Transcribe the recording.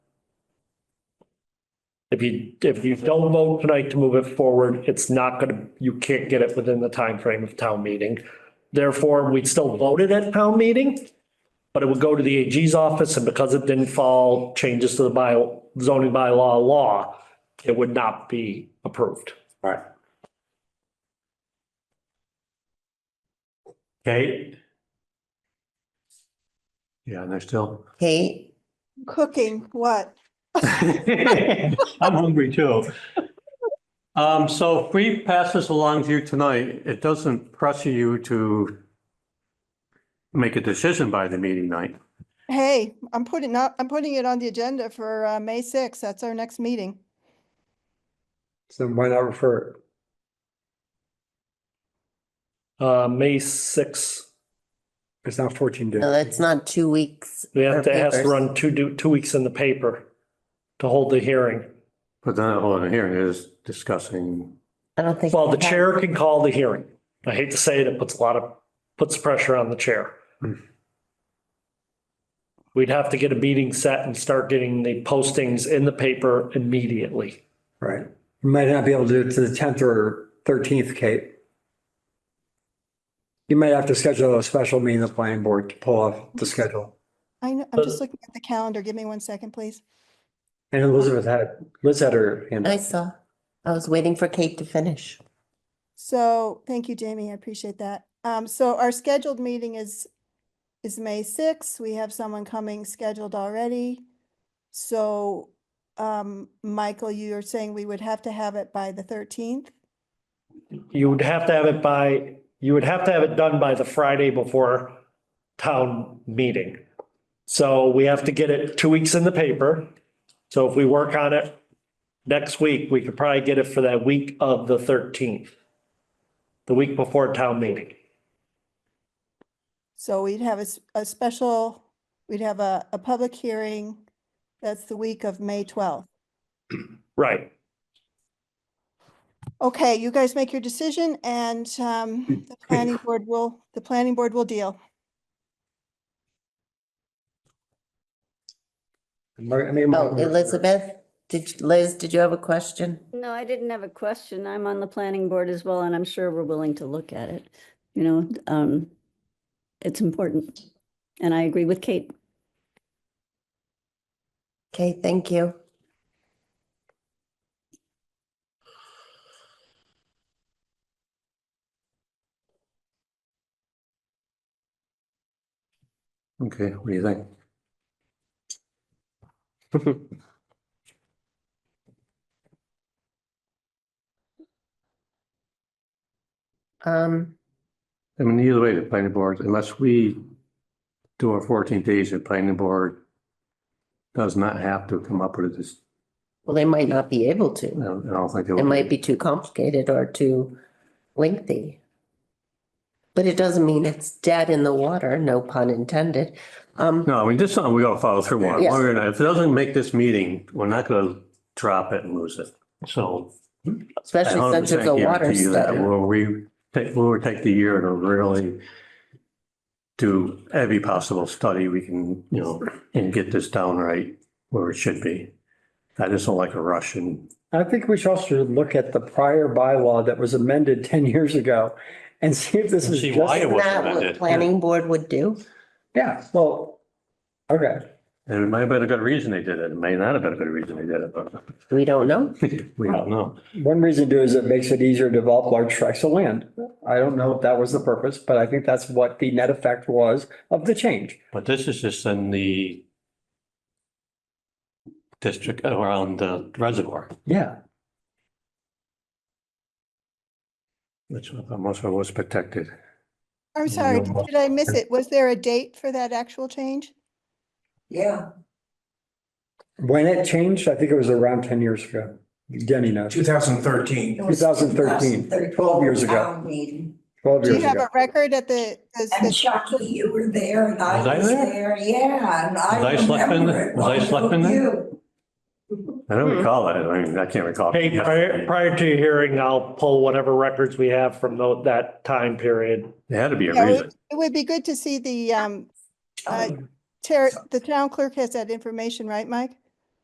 If you, if you don't vote tonight to move it forward, it's not gonna, you can't get it within the time frame of town meeting. Therefore, we still voted at town meeting, but it would go to the AG's office and because it didn't fall changes to the bio, zoning bylaw law, it would not be approved. All right. Kate? Yeah, and they're still. Kate, Cooking what? I'm hungry too. Um, so if we pass this along to you tonight, it doesn't pressure you to make a decision by the meeting night. Hey, I'm putting up, I'm putting it on the agenda for uh, May sixth. That's our next meeting. So why not refer Uh, May sixth, it? It's not fourteen no, days. that's not two weeks. we have to, it has to Papers. run two, do, two weeks in the paper to hold the hearing. But then all I'm hearing is discussing, I don't think. Well, the that- chair can call the hearing. I hate to say it, it puts a lot of, puts pressure on the chair. Hmm. We'd have to get a meeting set and start getting the postings in the paper immediately. Right. You might not be able to do it to the tenth or thirteenth, Kate. You might have to schedule a special meeting of the planning board to pull off the schedule. I know, I'm But- just looking at the calendar. Give me one second, please. And Elizabeth had, Liz had her hand I up. saw. I was waiting for Kate to finish. So, thank you, Jamie. I appreciate that. Um, so our scheduled meeting is, is May sixth. We have someone coming scheduled already. So, um, Michael, you're saying we would have to have it by the thirteenth? You would have to have it by, you would have to have it done by the Friday before town meeting. So we have to get it two weeks in the paper. So if we work on it next week, we could probably get it for that week of the thirteenth. The week before town meeting. So we'd have a, s- a special, we'd have a, a public hearing. That's the week of May twelfth. Right. Okay, you guys make your decision and um, the planning board will, the planning board will deal. Mar- I mean, Oh, Mm-hmm. Mar- Elizabeth, did, you- Liz, did you have a question? No, I didn't have a question. I'm on the planning board as well, and I'm sure we're willing to look at it. You know, um, it's important. And I agree with Kate. Okay, thank you. okay, what do you think? Um, I mean, either way, the planning board, unless we do our fourteen days, the planning board does not have to come up with this. well, they might not be able I to. don't I don't think. It might be too complicated or too lengthy. But it doesn't mean it's dead in the water, no pun intended. Um, No, I mean, this is something we gotta follow through on. Yes. We're gonna- If it doesn't make this meeting, we're not gonna drop it and lose it. So. I especially since it's a 100% water guarantee you that study. We'll re, take, we'll take the year to really do every possible study we can, you know, and get this down right where it should be. I just don't like a rush and I think we should also look at the prior bylaw that was amended ten years ago and see if this is See why it just, was- Isn't that amended. what planning board would do? yeah, well, okay. And it might have been a good reason they did it. It may not have been a good reason they did it, but We don't know. we don't know. One reason to do is it makes it easier to develop large tracts of land. I don't know if that was the purpose, but I think that's what the net effect was of the change. But this is just in the district uh, around the reservoir, Yeah. which I'm not sure was protected. I'm Yeah, sorry, you're did- welcome. did I miss it? Was there a date for that actual change? Yeah. When it changed, I think it was around ten years ago. Denny knows, 2013. 2013, 12 years ago. Town meeting. twelve Do you years have ago. a record at the? the- And the- Chucky, you were there and Was I I was there? there, yeah, and I Was I slept in remember there? it. Was I Why slept in don't there? you? I don't recall it. I mean, I can't recall. Hey, prior, prior to your hearing, I'll pull whatever records we have from tho- that time period. There had to be a Yeah, reason. It it would be good to see the, um, uh, ter- the town clerk has that information, right, Mike?